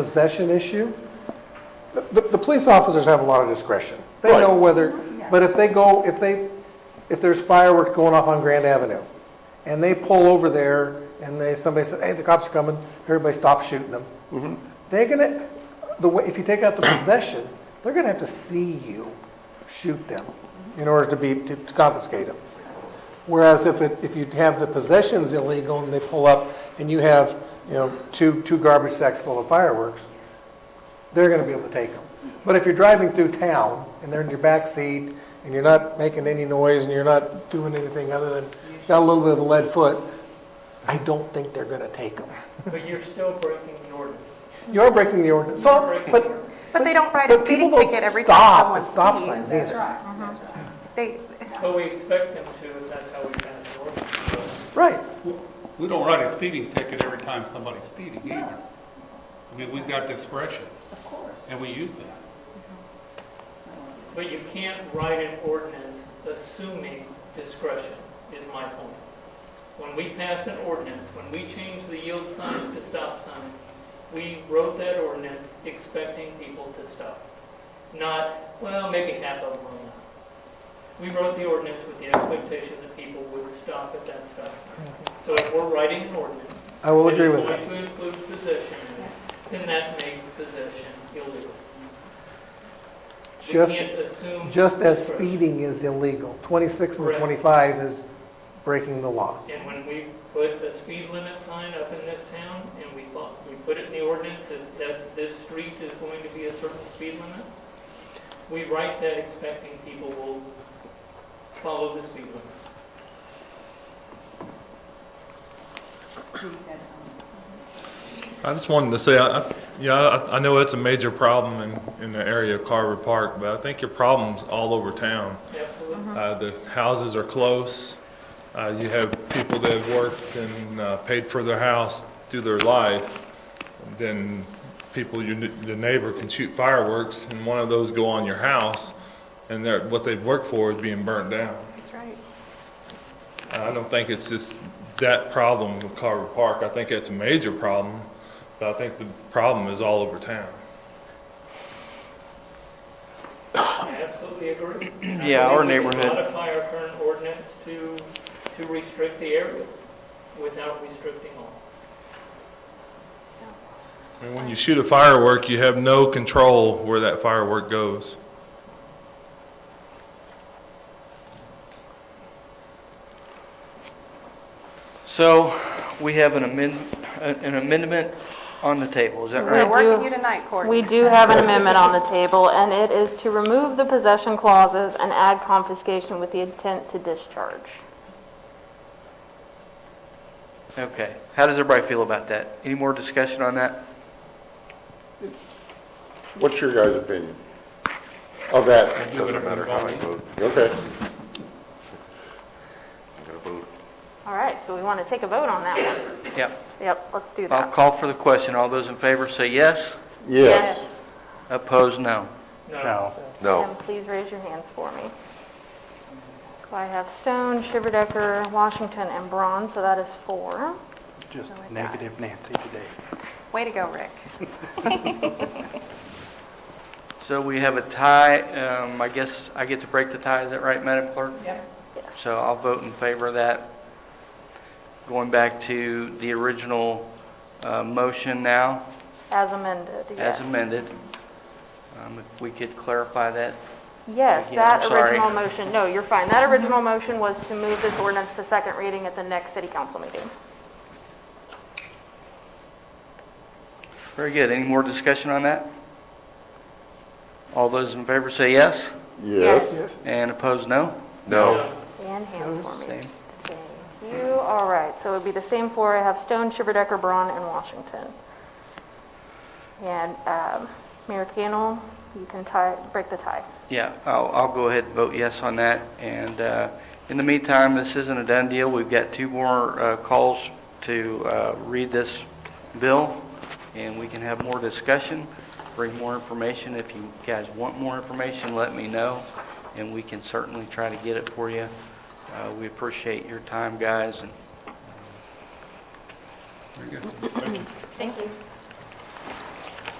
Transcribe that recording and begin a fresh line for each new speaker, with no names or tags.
possession issue, the, the police officers have a lot of discretion. They know
Right.
whether, but if they go, if they, if there's fireworks going off on Grand Avenue, and they pull over there, and they, somebody says, hey, the cops are coming, everybody stops shooting them. They're gonna, the way, if you take out the possession, they're gonna have to see you shoot them in order to be, to to confiscate them. Whereas if it, if you have the possessions illegal and they pull up and you have, you know, two, two garbage sacks full of fireworks, they're gonna be able to take them. But if you're driving through town and they're in your backseat and you're not making any noise and you're not doing anything other than, got a little bit of a lead foot, I don't think they're gonna take them.
But you're still breaking the ordinance.
You're breaking the ordinance, so, but.
But they don't write a
but
speeding
people don't
ticket every
stop
time someone
at stop signs
speeds.
either.
They,
But we expect them to, and that's how we pass the ordinance.
Right,
We don't write a speeding ticket every time somebody's speeding either. I mean, we've got discretion. Of course. And we use that.
But you can't write an ordinance assuming discretion, is my point. When we pass an ordinance, when we change the yield signs to stop signs, we wrote that ordinance expecting people to stop. Not, well, maybe half of them will not. We wrote the ordinance with the expectation that people would stop at that stop sign. So if we're writing an ordinance,
I will agree with
It
that.
is going to include possession, and that makes possession illegal.
Just.
We can't assume.
Just as speeding is illegal, 26 and
Correct.
25 is breaking the law.
And when we put a speed limit sign up in this town, and we, bu- we put it in the ordinance that that's, this street is going to be a certain speed limit, we write that expecting people will follow the speed limit.
I just wanted to say, I, I- yeah, I, I know that's a major problem in, in the area of Carver Park, but I think your problem's all over town.
Absolutely.
Uh, the houses are close. Uh, you have people that have worked and uh, paid for their house through their life. Then people, your, ne- the neighbor can shoot fireworks and one of those go on your house and they're, what they've worked for is being burnt down.
that's right.
I don't think it's just that problem with Carver Park. I think it's a major problem, but I think the problem is all over town.
I absolutely agree. And I
Yeah, our
believe we can
neighborhood-
Modify our current ordinance to, to restrict the area without restricting all.
I mean, when you shoot a firework, you have no control where that firework goes.
So we have an amend, an amendment on the table, is that
We're
right?
working you tonight, Courtney.
We do have an amendment on the table, and it is to remove the possession clauses and add confiscation with the intent to discharge.
Okay. How does everybody feel about that? Any more discussion on that?
What's your guys' opinion of that?
Doesn't matter how I vote.
Okay.
All right, so we want to take a vote on that one.
Yep.
Yep, let's do
I'll
that.
call for the question. All those in favor say yes,
Uh, Yes.
opposed, no.
No.
And please raise your hands for me. So I have Stone, Shiverdecker, Washington, and Braun, so that is four.
Just negative Nancy today. Way to go, Rick.
So we have a tie. Um, I guess I get to break the tie, is that right, Madam Clerk?
Yes.
So I'll vote in favor of that. Going back to the original uh, motion now,
As amended, yes.
as amended. Um, If we could clarify that,
Yes,
Yeah, I'm
that
sorry.
original motion, no, you're fine. That original motion was to move this ordinance to second reading at the next city council meeting.
Very good. Any more discussion on that? All those in favor say yes,
Yes.
and opposed, no?
No.
And hands for me.
Same.
Thank you, all right, so it would be the same four, I have Stone, Shiverdecker, Braun, and Washington. And um, Mayor Cannell, you can tie, break the tie.
Yeah, I'll, I'll go ahead and vote yes on that. And uh, in the meantime, this isn't a done deal. We've got two more uh, calls to uh, read this bill, and we can have more discussion, bring more information. If you guys want more information, let me know, and we can certainly try to get it for you. Uh, We appreciate your time, guys, and
Very good.
Thank you.